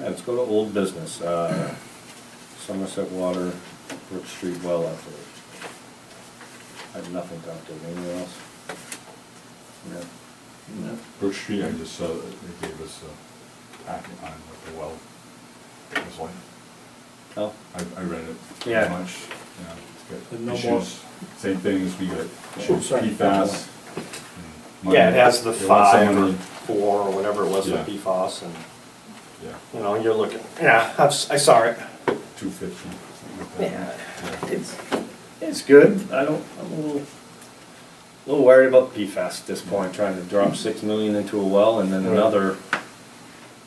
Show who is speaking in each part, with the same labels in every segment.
Speaker 1: Let's go to old business, uh, Somerset Water, Brook Street well update. I have nothing to update, anyone else? No.
Speaker 2: No.
Speaker 3: Brook Street, I just saw that they gave us a packet on what the well was like.
Speaker 1: Oh,
Speaker 3: I, I read it. pretty
Speaker 1: Yeah.
Speaker 3: Much, you know, it's
Speaker 2: And no
Speaker 3: got
Speaker 2: more-
Speaker 3: issues, same thing as we got
Speaker 2: Oh,
Speaker 3: issues,
Speaker 2: sorry.
Speaker 3: PFAS. and
Speaker 1: yeah, it has the
Speaker 3: they want
Speaker 1: five or
Speaker 3: somebody-
Speaker 1: four or whatever it was with
Speaker 3: Yeah.
Speaker 1: PFOS and,
Speaker 3: Yeah,
Speaker 1: you know, you're looking, yeah, I've, si saw it.
Speaker 3: two fifty, something like that. Yeah.
Speaker 1: It's, it's good, I don't, I'm a little, a little worried about PFAS at this point, trying to drop six million into a well and then
Speaker 2: Right.
Speaker 1: another.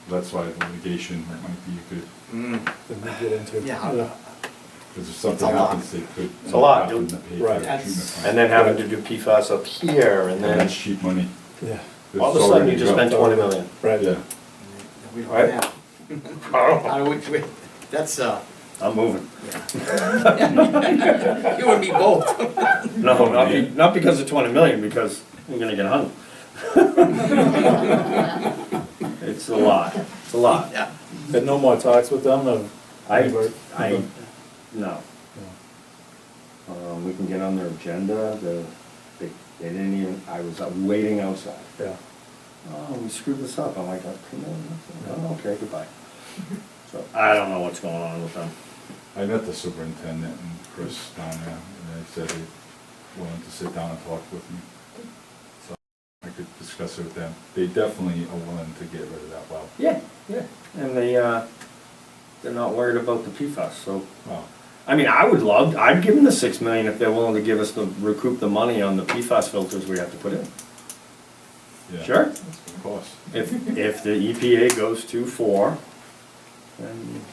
Speaker 3: That's why litigation might be a good,
Speaker 2: Then we get into.
Speaker 4: Yeah.
Speaker 3: because if
Speaker 4: It's a
Speaker 3: something
Speaker 4: lot.
Speaker 3: happens, they could.
Speaker 1: It's a lot,
Speaker 3: have
Speaker 1: dude.
Speaker 3: to pay for
Speaker 2: Right.
Speaker 3: the
Speaker 4: That's-
Speaker 3: treatment plant.
Speaker 1: And then having to do PFAS up here and
Speaker 3: And
Speaker 1: then
Speaker 3: that's cheap money.
Speaker 2: Yeah,
Speaker 1: all of a
Speaker 3: It's
Speaker 1: sudden
Speaker 3: already
Speaker 1: you just
Speaker 3: rough.
Speaker 1: spent twenty million.
Speaker 2: right.
Speaker 3: Yeah,
Speaker 4: We don't
Speaker 1: Right.
Speaker 4: have-
Speaker 1: I'm
Speaker 4: How do we, we- that's, uh,
Speaker 1: moving.
Speaker 4: yeah. You and me both.
Speaker 1: No, not, be- not because of twenty million, because we're gonna get hung. It's a lot, it's a lot.
Speaker 4: Yeah.
Speaker 2: And no more talks with them, no?
Speaker 1: I,
Speaker 2: Anybody?
Speaker 1: I, no.
Speaker 2: No.
Speaker 1: Um, we can get on their agenda, the, they, they didn't even, I was out waiting outside.
Speaker 2: Yeah,
Speaker 1: Oh, we screwed this up, I'm like, oh, come on, oh, okay, goodbye. So, I don't know what's going on with them.
Speaker 3: I met the superintendent and Chris down there, and they said they wanted to sit down and talk with me. So I could discuss it with them. They definitely are willing to get rid of that well.
Speaker 1: Yeah, yeah, and they, uh, they're not worried about the PFAS, so,
Speaker 3: Well,
Speaker 1: I mean, I would love, I'd give them the six million if they're willing to give us the, recoup the money on the PFAS filters we have to put in.
Speaker 3: yeah.
Speaker 1: Sure.
Speaker 3: Of course.
Speaker 1: If, if the EPA goes to four, then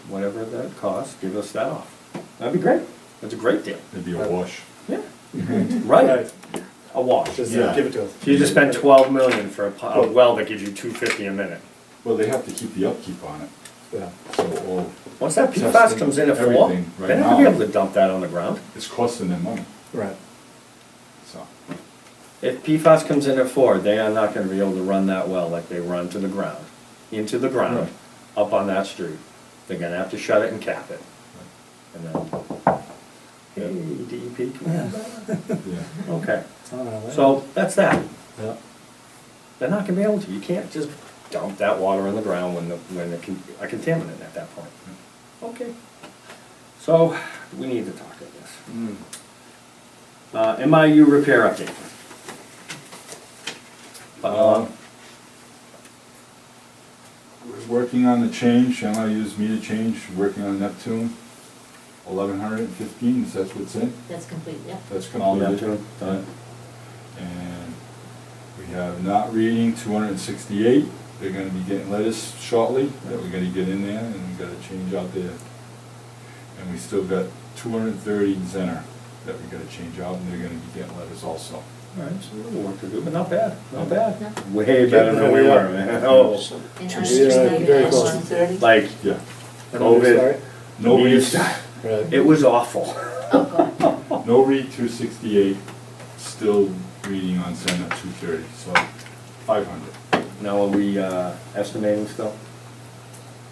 Speaker 1: whatever that costs, give us that off. That'd be great, that's a great deal.
Speaker 3: It'd be a wash.
Speaker 1: Yeah. Right,
Speaker 2: Right.
Speaker 1: a wash.
Speaker 2: just uh,
Speaker 3: Yeah.
Speaker 2: give it to us.
Speaker 1: So you just spend twelve million for a po- a well that gives you two fifty a minute.
Speaker 3: Well, they have to keep the upkeep on it,
Speaker 2: Yeah,
Speaker 3: so all,
Speaker 1: Once that PFAS
Speaker 3: Testing
Speaker 1: comes in at four, they're
Speaker 3: everything
Speaker 1: not
Speaker 3: right
Speaker 1: gonna be
Speaker 3: now.
Speaker 1: able to dump that on the ground.
Speaker 3: it's costing them money,
Speaker 2: right.
Speaker 3: so.
Speaker 1: If PFAS comes in at four, they are not gonna be able to run that well like they run to the ground, into the ground, up on that street. They're gonna have to shut it and cap it, and then, hey, E DEP, come on back.
Speaker 3: Yeah,
Speaker 1: Okay,
Speaker 2: It's on our way.
Speaker 1: so that's that.
Speaker 2: Yeah,
Speaker 1: They're not gonna be able to, you can't just dump that water on the ground when the, when the, con- a contaminant at that point. Okay. So, we need to talk about this.
Speaker 4: Mm.
Speaker 1: Uh, MIU repair update. Uh,
Speaker 3: We're Working on the change, I'm gonna use meter change, working on Neptune, eleven hundred and fifteen, is that what's in?
Speaker 5: That's complete, yeah.
Speaker 3: That's
Speaker 1: All
Speaker 3: completed.
Speaker 1: Neptune, done.
Speaker 3: And we have not reading, two hundred and sixty-eight, they're gonna be getting lettuce shortly, that we gotta get in there, and we gotta change out there. And we still got two hundred and thirty in center that we gotta change out, and they're gonna be getting lettuce also.
Speaker 1: Alright, so a little work to do, but not bad, not bad.
Speaker 5: No.
Speaker 1: Way better than we were, man. Oh,
Speaker 5: And
Speaker 2: Yeah,
Speaker 5: ours is like
Speaker 2: very
Speaker 5: at
Speaker 2: close.
Speaker 5: 1:30?
Speaker 1: like,
Speaker 3: Yeah,
Speaker 2: Everybody
Speaker 1: COVID.
Speaker 2: sorry?
Speaker 3: no read,
Speaker 2: Right.
Speaker 1: it was awful.
Speaker 5: Oh, God.
Speaker 3: no read two sixty-eight, still reading on center two thirty, so five hundred.
Speaker 1: Now, are we, uh, estimating still?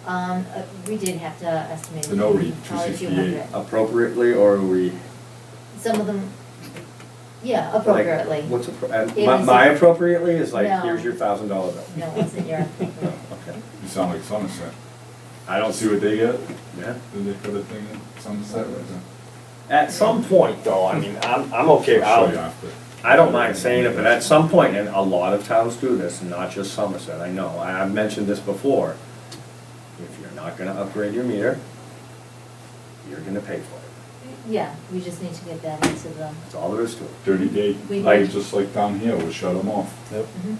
Speaker 5: Um, uh, we did have to estimate.
Speaker 3: The no read,
Speaker 5: probably a few
Speaker 3: 268.
Speaker 5: hundred.
Speaker 1: Appropriately, or are we?
Speaker 5: Some of them, yeah,
Speaker 1: like,
Speaker 5: appropriately.
Speaker 1: What's, appro- and
Speaker 5: It
Speaker 1: my,
Speaker 5: was
Speaker 1: my
Speaker 5: a-
Speaker 1: appropriately is like,
Speaker 5: No.
Speaker 1: here's your thousand dollar bill.
Speaker 5: No, it's in your,
Speaker 1: Oh, Okay.
Speaker 3: You sound like Somerset.
Speaker 1: I
Speaker 3: I don't see what they get,
Speaker 1: Yeah.
Speaker 3: did they put a thing in Somerset right now?
Speaker 1: At some point, though, I mean, I'm, I'm okay,
Speaker 3: I'll show you
Speaker 1: I'll,
Speaker 3: after.
Speaker 1: I don't mind saying it, but at some point, and a lot of towns do this, and not just Somerset, I know, I, I've mentioned this before. If you're not gonna upgrade your meter, you're gonna pay for it,
Speaker 5: yeah, we just need to get that into the,
Speaker 1: that's all there is to it.
Speaker 3: Thirty day,
Speaker 5: We
Speaker 3: like,
Speaker 5: did.
Speaker 3: just like down here, we shut them off.
Speaker 2: Yep.
Speaker 5: Mhm.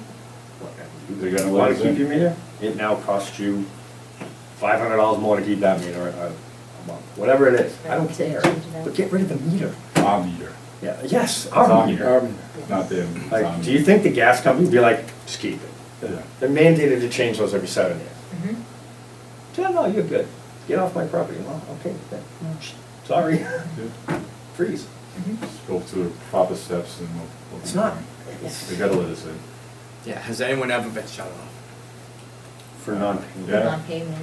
Speaker 3: They're gonna
Speaker 1: You Wanna
Speaker 3: let us in.
Speaker 1: keep your meter? It now costs you five hundred dollars more to keep that meter a, a month, whatever it is, I don't
Speaker 5: Right, to
Speaker 1: care,
Speaker 5: change it out.
Speaker 1: but get rid of the meter.
Speaker 3: Our meter,
Speaker 1: Yeah, yes,
Speaker 3: Our
Speaker 1: our meter.
Speaker 3: um,
Speaker 2: Army.
Speaker 5: yeah.
Speaker 3: not them. it's our
Speaker 1: Like, do you
Speaker 3: meter.
Speaker 1: think the gas company would be like, just keep it?
Speaker 3: Yeah.
Speaker 1: They're mandated to change those every seven years.
Speaker 5: Mhm.
Speaker 1: No, no, you're good. Get off my property. Well, okay, then. sorry,
Speaker 3: Yeah.
Speaker 1: freeze.
Speaker 3: Just Go through the proper steps and we'll. we'll be
Speaker 1: It's not-
Speaker 3: fine.
Speaker 1: it's-
Speaker 3: They gotta let us in.
Speaker 4: Yeah, has anyone ever been shut off?
Speaker 1: For non-payment.
Speaker 3: Yeah.
Speaker 5: Non-payment.